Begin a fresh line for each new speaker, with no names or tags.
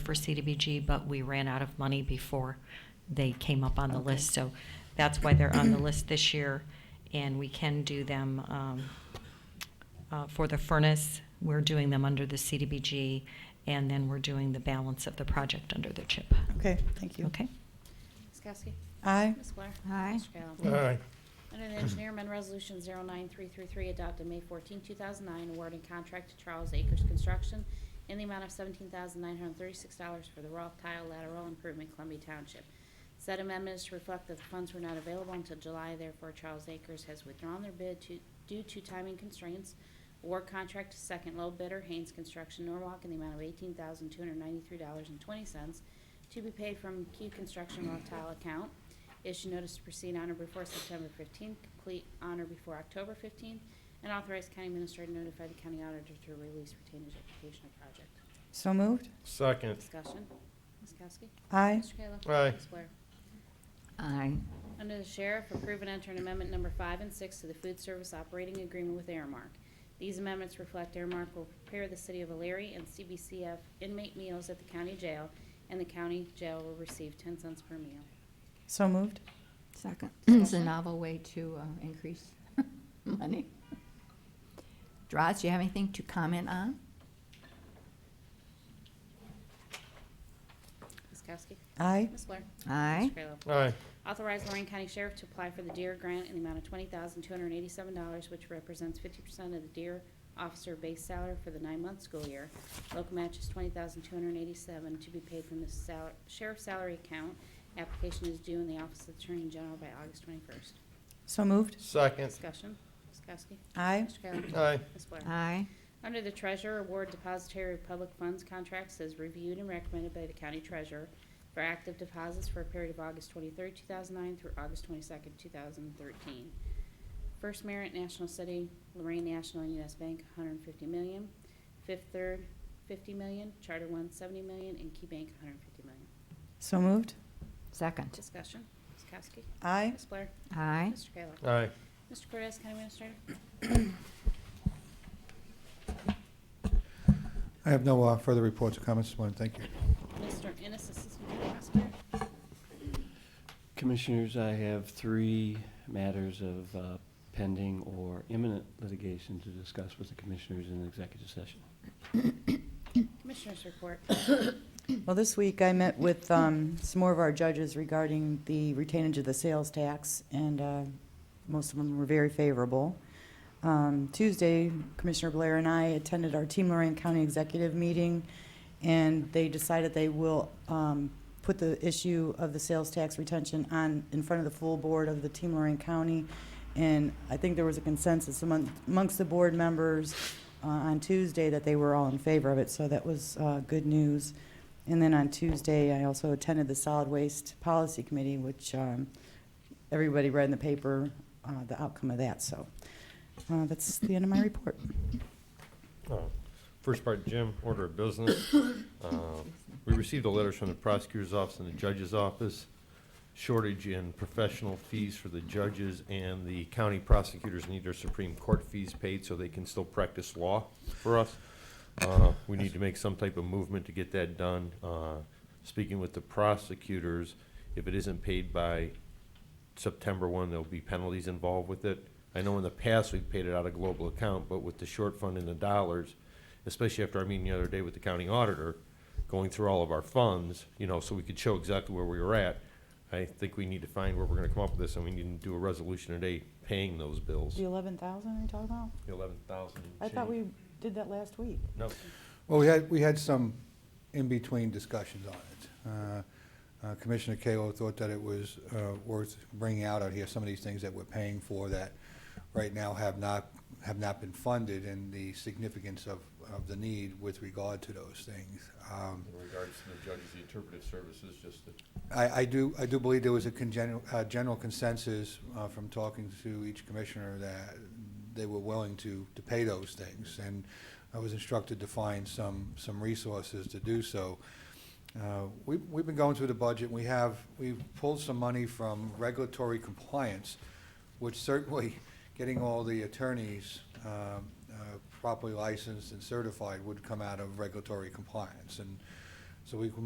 for CDBG, but we ran out of money before they came up on the
Okay.
list. So that's why they're on the list this year, and we can do them um, uh, for the furnace. We're doing them under the CDBG, and then we're doing the balance of the project under the CHIP.
Okay, thank you.
Okay?
Ms. Kowski?
Aye.
Ms. Blair?
Aye.
Mr. Kayla?
aye,
Under the Engineer Amendment Resolution 09333, adopted May 14, 2009, awarding contract to Charles Acres Construction in the amount of $17,936 for the Roth Tile Lateral Improvement Columbia Township. Said amendment is to reflect that the funds were not available until July, therefore Charles Acres has withdrawn their bid to- due to timing constraints. Award contract to second low bidder, Haynes Construction Norwalk, in the amount of $18,293.20 to be paid from Q Construction Roth Tile account. Issue notice to proceed on or before September 15th, complete on or before October 15th, and authorize county administrator to notify the county auditor to release retained execution of project.
So moved.
second,
Discussion. Ms. Kowski?
Aye.
Mr. Kayla?
Aye.
Ms. Blair?
Aye.
Under the Sheriff, approve and enter an amendment number five and six to the food service operating agreement with Airmark. These amendments reflect Airmark will prepare the city of Alariah and CBCF inmate meals at the county jail, and the county jail will receive 10 cents per meal.
So moved.
Second. It's a novel way to uh, increase money. Droz, do you have anything to comment on?
Ms. Kowski?
Aye.
Ms. Blair?
Aye.
Mr. Kayla?
aye,
Authorize Lorraine County Sheriff to apply for the Deer Grant in the amount of twenty thousand two hundred and eighty-seven dollars, which represents fifty percent of the Deer Officer base salary for the nine-month school year. Local match is twenty thousand two hundred and eighty-seven to be paid from the sal- sheriff's salary account. Application is due in the Office of Attorney General by August twenty-first.
So moved.
second,
Discussion, Ms. Kowski.
Aye.
Mr. Kayla.
aye,
Ms. Blair.
Aye.
Under the Treasurer, award depositary of public funds contracts as reviewed and recommended by the County Treasurer for active deposits for a period of August 23, 2009 through August 22, 2013. First Merit National City, Lorraine National and U.S. Bank, $150 million. Fifth Third, $50 million. Charter One, $70 million. And Key Bank, $150 million.
So moved.
Second.
Discussion. Ms. Kowski.
Aye.
Ms. Blair.
Aye.
Mr. Kayla.
aye,
Mr. Cortez, County Administrator.
I have no uh, further reports or comments this morning. Thank you.
Mr. Ennis, Assistant County Prosecutor.
Commissioners, I have three matters of uh, pending or imminent litigation to discuss with the commissioners in executive session.
Commissioners report.
Well, this week I met with um, some more of our judges regarding the retainage of the sales tax, and uh, most of them were very favorable. Um, Tuesday, Commissioner Blair and I attended our Team Lorraine County Executive Meeting, and they decided they will um, put the issue of the sales tax retention on, in front of the full board of the Team Lorraine County. And I think there was a consensus among- amongst the board members uh, on Tuesday that they were all in favor of it, so that was uh, good news. And then on Tuesday, I also attended the Solid Waste Policy Committee, which um, everybody read in the paper, uh, the outcome of that, so uh, that's the end of my report.
Oh, First part, Jim, order of business. Uh, We received the letters from the prosecutor's office and the judge's office. Shortage in professional fees for the judges and the county prosecutors need their Supreme Court fees paid so they can still practice law for us. Uh, We need to make some type of movement to get that done. Uh, Speaking with the prosecutors, if it isn't paid by September one, there'll be penalties involved with it. I know in the past, we've paid it out of global account, but with the short fund in the dollars, especially after our meeting the other day with the county auditor, going through all of our funds, you know, so we could show exactly where we were at, I think we need to find where we're gonna come up with this, and we need to do a resolution today paying those bills.
The 11,000 are you talking about?
Eleven thousand.
I thought we did that last week.
No,
Well, we had, we had some in-between discussions on it. Uh, uh, Commissioner Kalo thought that it was uh, worth bringing out out here, some of these things that we're paying for that right now have not, have not been funded and the significance of, of the need with regard to those things. Um,
in regards to the judges, the interpretive services, just to
I, I do, I do believe there was a congenial, uh, general consensus, uh, from talking to each commissioner that they were willing to, to pay those things. And I was instructed to find some, some resources to do so. Uh, we, we've been going through the budget, we have, we've pulled some money from regulatory compliance, which certainly, getting all the attorneys, um, uh, properly licensed and certified would come out of regulatory compliance. And so we